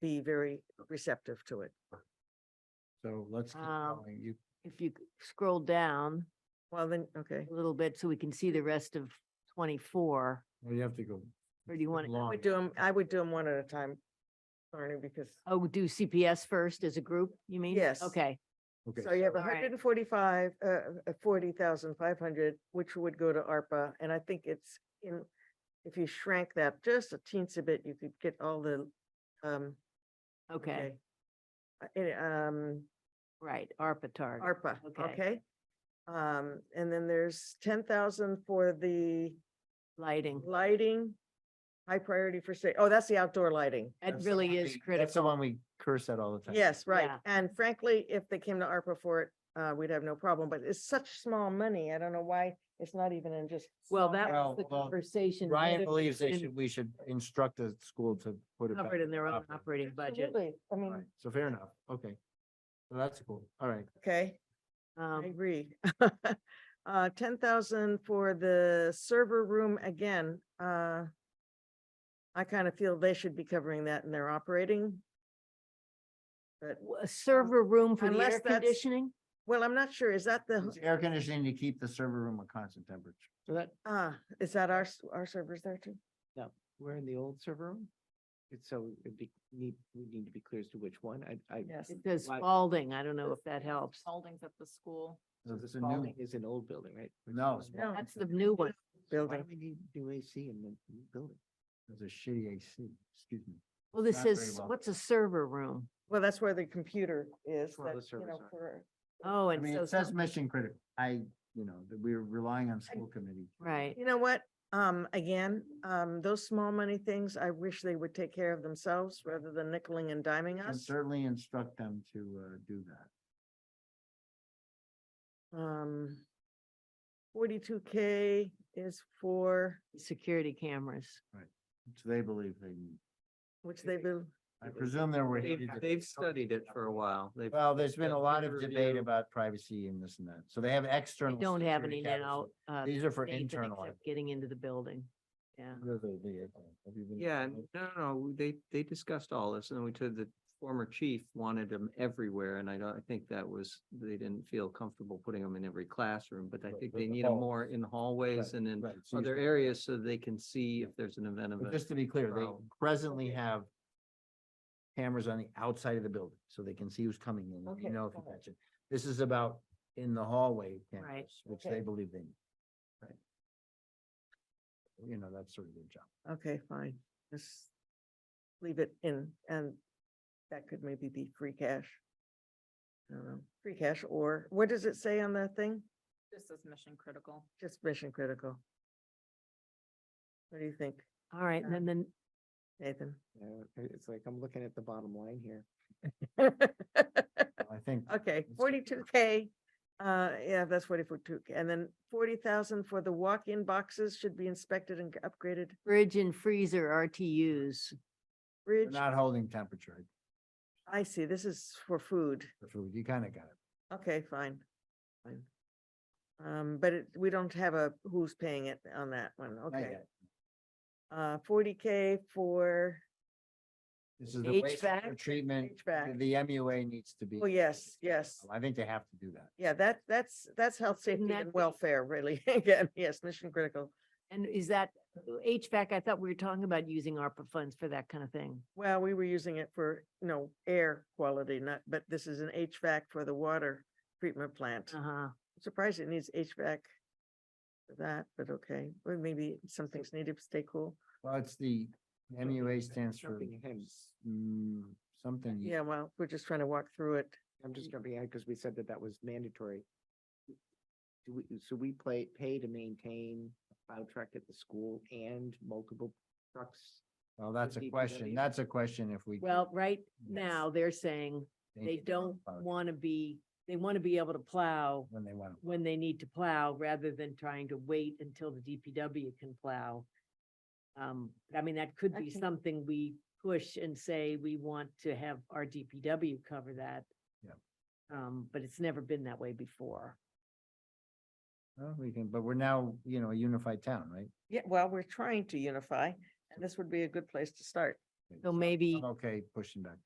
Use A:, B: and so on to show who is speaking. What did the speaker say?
A: be very receptive to it.
B: So let's keep
C: Um,
B: going. You,
C: If you c- scroll down
A: Well, then, okay.
C: a little bit so we can see the rest of twenty-four,
B: well, you have to go.
C: or do you want,
A: I
B: long.
A: would do them, I would do them one at a time, Barney, because,
C: oh, do CPS first as a group, you mean?
A: Yes.
C: Okay,
B: Okay,
A: so you have
C: All right.
A: hundred and forty-five, uh, uh, forty thousand five hundred, which would go to ARPA, and I think it's in, if you shrank that just a teensy bit, you could get all the, um,
C: okay,
A: Uh, it, um,
C: right, ARPA target.
A: ARPA,
C: Okay.
A: okay? Um, and then there's ten thousand for the
C: lighting.
A: lighting, high priority for say, oh, that's the outdoor lighting.
C: It
B: that's the
C: really
B: one
C: is
B: we- That's the
C: critical.
B: one we curse at all the time.
A: Yes, right.
C: Yeah.
A: And frankly, if they came to ARPA for it, uh, we'd have no problem, but it's such small money. I don't know why it's not even in just.
C: Well,
A: small
C: that
A: cap-
B: Well,
C: was the
B: well,
C: conversation.
B: Ryan
C: whether
B: believes they
C: it's
B: should, we should instruct the school to put it back.
C: Covered in their own
B: operating.
C: operating budget.
A: Absolutely. I
B: All
A: mean,
B: right, So fair enough. Okay. So that's cool. All right.
A: okay, I
C: Um,
A: agree. Uh, ten thousand for the server room again, uh. I kind of feel they should be covering that in their operating. But,
C: w- a server room for the
A: Unless
C: air
A: that's-
C: conditioning?
A: well, I'm not sure. Is that
C: Uh-huh.
A: the,
B: It's air conditioning to keep the server room at constant temperature. So that,
A: ah, is that our, s- our servers there too?
D: We're in the old server room? It's So it'd be, need, we need to be clear as to which one. I, I.
A: Yes.
C: It says
D: Like-
C: Spalding. I don't know if that helps.
E: Holdings at the school.
D: So the
B: It's a new,
D: Spalding is an old building, right?
B: no, it's-
A: No.
C: That's the new one.
D: Why
A: Building.
D: do we need new AC in the new building?
B: it's a shitty AC, excuse me.
C: Well, this
B: Not very
C: says,
B: well.
C: what's a server room?
A: Well, that's where the computer is,
D: where all
A: that,
D: the
A: you know,
D: servers are.
A: for,
C: Oh,
B: I
C: and
B: mean,
C: so.
B: it says
C: some-
B: mission critical. I, you know, that we're relying on school committee.
C: Right.
A: you know what? Um, again, um, those small money things, I wish they would take care of themselves rather than nickeling and diming
B: And
A: us.
B: certainly instruct them to, uh, do that.
A: Um, forty-two K is for,
C: Security cameras.
B: which they believe they need.
A: which they will,
B: I presume there were.
D: They've, they've studied it for a while. They've.
B: Well, there's been a
D: done
B: lot
D: peer
B: of debate
D: review.
B: about privacy and this and that. So they have external.
C: Don't have any
B: security
C: now.
B: cameras.
C: uh,
B: These are for
C: anything
B: internal.
C: except Getting into the building. Yeah.
B: Those are the, uh, have you been-
D: Yeah, n- no, no, no, they, they discussed all this and we told the former chief wanted them everywhere and I don't, I think that was, they didn't feel comfortable putting them in every classroom, but I
B: Right,
D: think
B: but
D: they
B: the
D: need them
B: halls.
D: more in
B: Right,
D: hallways and in
B: right, so you-
D: other areas so they can see if there's an event of
B: But
D: it.
B: just to be clear, they
D: Well-
B: presently have cameras on the outside of the building, so they can see who's coming in,
A: Okay,
B: you know, if you
A: got it.
B: catch it. This is about in the hallway
C: Right,
B: cameras, which they
A: okay.
B: believe they need. Right. You know, that's sort of their job.
A: okay, fine, just leave it in, and that could maybe be free cash. I don't know, free cash, or what does it say on the thing?
E: This is mission critical.
A: Just mission critical. What do you think,
C: All right. And then, then
A: Nathan?
B: uh,
D: It's like, I'm looking at the bottom line here.
B: I think
A: Okay,
B: That's good.
A: forty-two K, uh, yeah, that's forty-two, and then forty thousand for the walk-in boxes should be inspected and upgraded.
C: fridge and freezer RTUs.
B: they're
A: Bridge,
B: not holding temperature
A: I see, this is for food,
B: for food. You kind of got it.
A: okay, fine, fine. Um, but it, we don't have a, who's paying it on that one,
B: I
A: okay,
B: got it.
A: uh, forty K for,
B: This is the wastewater
C: HVAC?
B: treatment.
A: HVAC.
B: The MUA needs to be.
A: oh, yes, yes.
B: I think they have to do that.
A: Yeah, that, that's, that's health, safety
C: that
A: and
C: be-
A: welfare, really, again, yes, mission critical.
C: And is that HVAC? I thought we were talking about using ARPA funds for that kind of thing.
A: Well, we were using it for, you know, air quality, not, but this is an HVAC for the water treatment plant.
C: Uh huh.
A: I'm Surprised it needs HVAC for that, but okay, or maybe some things need to stay cool.
B: Well, it's the MUA stands for
D: Something him.
B: mm, something.
A: Yeah, well, we're just trying to walk through it.
D: I'm just jumping ahead because we said that that was mandatory. Do we, so we play, pay to maintain a plow truck at the school and multiple trucks?
B: Well, that's a
D: DPW.
B: question. That's a question if we.
C: Well, right now they're saying they don't want to be, they want to be able to plow
B: When they want.
C: when they need to plow rather than trying to wait until the DPW can plow. Um, I mean, that could be
A: Okay.
C: something we push and say we want to have our DPW cover that.
B: Yep.
C: Um, but it's never been that way before.
B: Well, we can, but we're now, you know, a unified town, right?
A: Yeah, well, we're trying to unify, and this would be a good place to start.
C: So maybe-
B: I'm Okay, pushing back.